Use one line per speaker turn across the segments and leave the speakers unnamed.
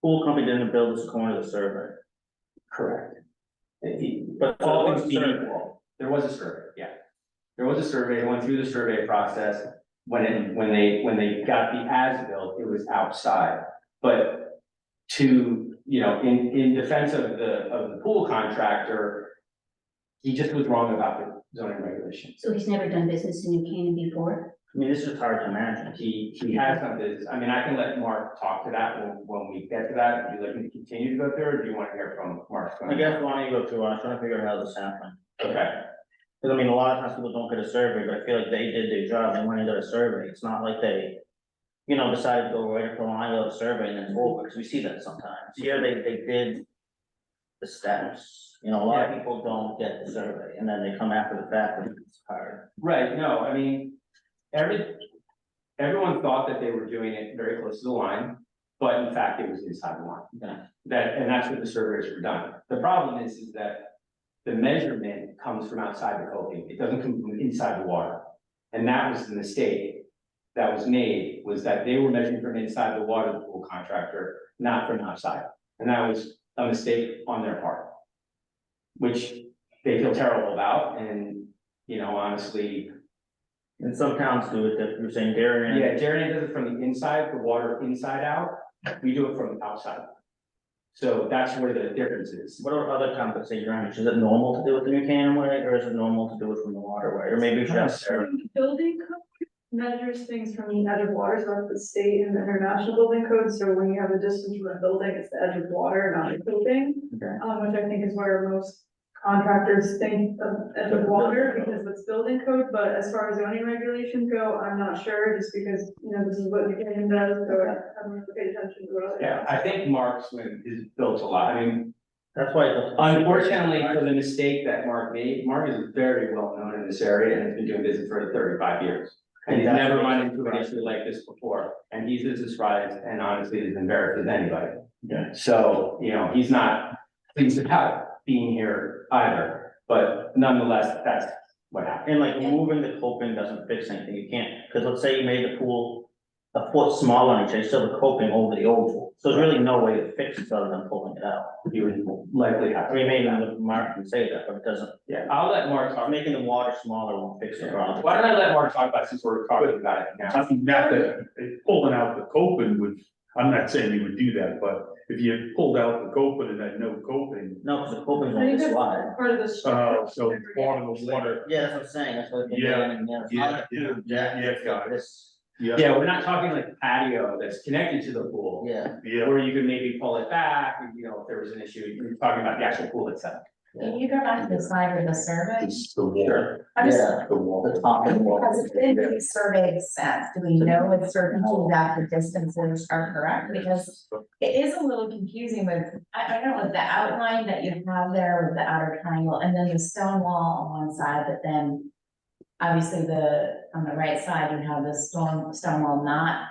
pool company didn't build this corner of the survey,
Correct. It- it-
but all
all things
things
being
survey.
equal, there was a survey, yeah. There was a survey, it went through the survey process, when it, when they, when they got the as-built, it was outside. But to, you know, in, in defense of the, of the pool contractor, he just was wrong about the zoning regulations.
So he's never done business in New Canaan before?
I mean, it's just hard to imagine.
He, he has some business, I mean, I can let Mark talk to that when, when we get to that, would you like me to continue to go there, or do you want to hear from Mark?
I guess why don't you go through, I'm trying to figure out how this happened.
Okay,
Cause I mean, a lot of times people don't get a survey, but I feel like they did their job, they went and did a survey, it's not like they. You know, decided to go right up the line of the survey and then it's over, cause we see that sometimes, yeah, they, they did. The steps, you know, a lot of people don't get the survey, and then they come after the fact, and it's hard.
right, no, I mean, every, everyone thought that they were doing it very close to the line, but in fact, it was inside the line.
Yeah.
That, and that's what the surveys were done. The problem is, is that the measurement comes from outside the coping, it doesn't come from inside the water. And that was the mistake that was made, was that they were measuring from inside the water, the pool contractor, not from outside. And that was a mistake on their part. Which they feel terrible about, and, you know, honestly,
And some towns do it, that you're saying Darien.
yeah, Jeremy does it from the inside, the water inside out, we do it from the outside. So that's where the difference is.
What are other towns that say drainage, is it normal to do it the New Canaan way, or is it normal to do it from the waterway, or maybe we should ask Sarah?
The Building code measures things from the edge of waters, not the state and the international building code, so when you have a distance from a building, it's the edge of water, not the building.
Okay.
Um, which I think is where most contractors think of edge of water, because it's building code, but as far as zoning regulations go, I'm not sure, just because, you know, this is what New Canaan does, so I haven't really paid attention to it.
Yeah, I think Mark's win is built a lot, I mean,
That's why. the-
unfortunately for the mistake that Mark made, Mark is very well known in this area and has been doing business for thirty-five years. And he's never run into an issue like this before, and he's as surprised and honestly as embarrassed as anybody.
Yeah.
So, you know, he's not pleased about being here either, but nonetheless, that's what happened.
And like moving the coping doesn't fix anything, you can't, because let's say you made the pool a foot smaller and you change still the coping over the old pool, so there's really no way to fix it other than pulling it out.
He would likely have
I
to.
mean, maybe not Mark can say that, but it doesn't,
Yeah, I'll let Mark talk.
making the water smaller won't fix the problem.
Why don't I let Mark talk about it since we're talking about it
I
now?
mean, not that, pulling out the coping would, I'm not saying you would do that, but if you pulled out the coping and had no coping,
No, because the coping's
I
on
think
the
that's
slide.
part of the.
uh, so part of the water.
Yeah, that's what I'm saying, that's what.
Yeah,
yeah,
yeah, yeah, yeah, yeah, got
This,
Yeah, we're not talking like patio that's connected to the pool.
yeah,
Yeah,
Where you could maybe pull it back, and, you know, if there was an issue, you're talking about the actual pool itself.
Can you go back to the slide or the survey?
it's the water,
I'm just-
yeah,
the water.
the top and wall.
Because it's in the survey sense, do we know with certainty that the distances are correct? Because it is a little confusing with, I, I don't know, with the outline that you have there with the outer triangle and then the stone wall on one side, but then obviously the, on the right side, you have the stone, stone wall not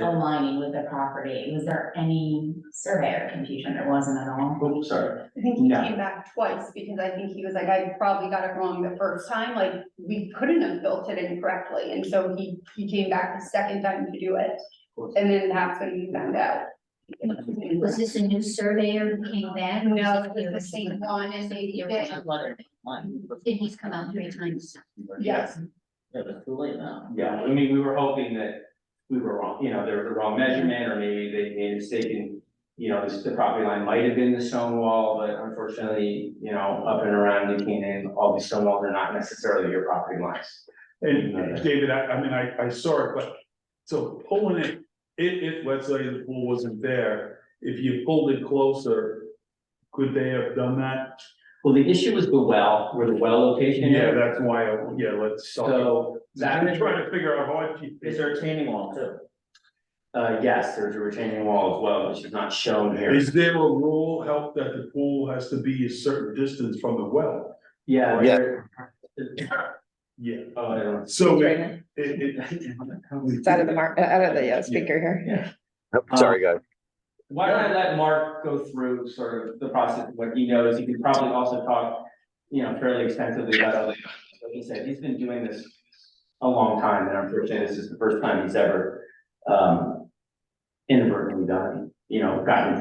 aligning with the property. Was there any surveyor confusion? There wasn't at all?
Oh, sorry.
I think he
No.
came back twice because I think he was like, I probably got it wrong the first time, like, we couldn't have built it incorrectly, and so he, he came back the second time to do it. And then that's when he found out.
Was this a new surveyor who came back?
No, it was the same one and they,
The
they,
original one. Did he's come out three times?
yes,
Yeah, but it's too late now.
Yeah, I mean, we were hoping that we were wrong, you know, there was a wrong measurement, or maybe they made a mistake in, you know, this- the property line might have been the stone wall, but unfortunately, you know, up and around New Canaan, all these stone walls are not necessarily your property lines.
And David, I, I mean, I, I saw it, but, so pulling it, if, if, let's say the pool wasn't there, if you pulled it closer, could they have done that?
Well, the issue was the well, where the well location
Yeah,
is,
that's why, I- yeah, let's.
so that,
I'm trying to figure out how you.
Is there a retaining wall too?
uh, yes, there's a retaining wall as well, which is not shown here.
Is there a rule help that the pool has to be a certain distance from the well?
Yeah. Yeah.
Yeah,
Oh, I don't.
Uh, so it,
Right
it,
now. It's out of the mark, out of the uh, speaker here.
Sorry, guys. Um, Why don't I let Mark go through sort of the process, of what he knows, he could probably also talk, you know, fairly extensively about other. Like he said, he's been doing this a long time, and unfortunately, this is the first time he's ever, um, inadvertently done, you know, gotten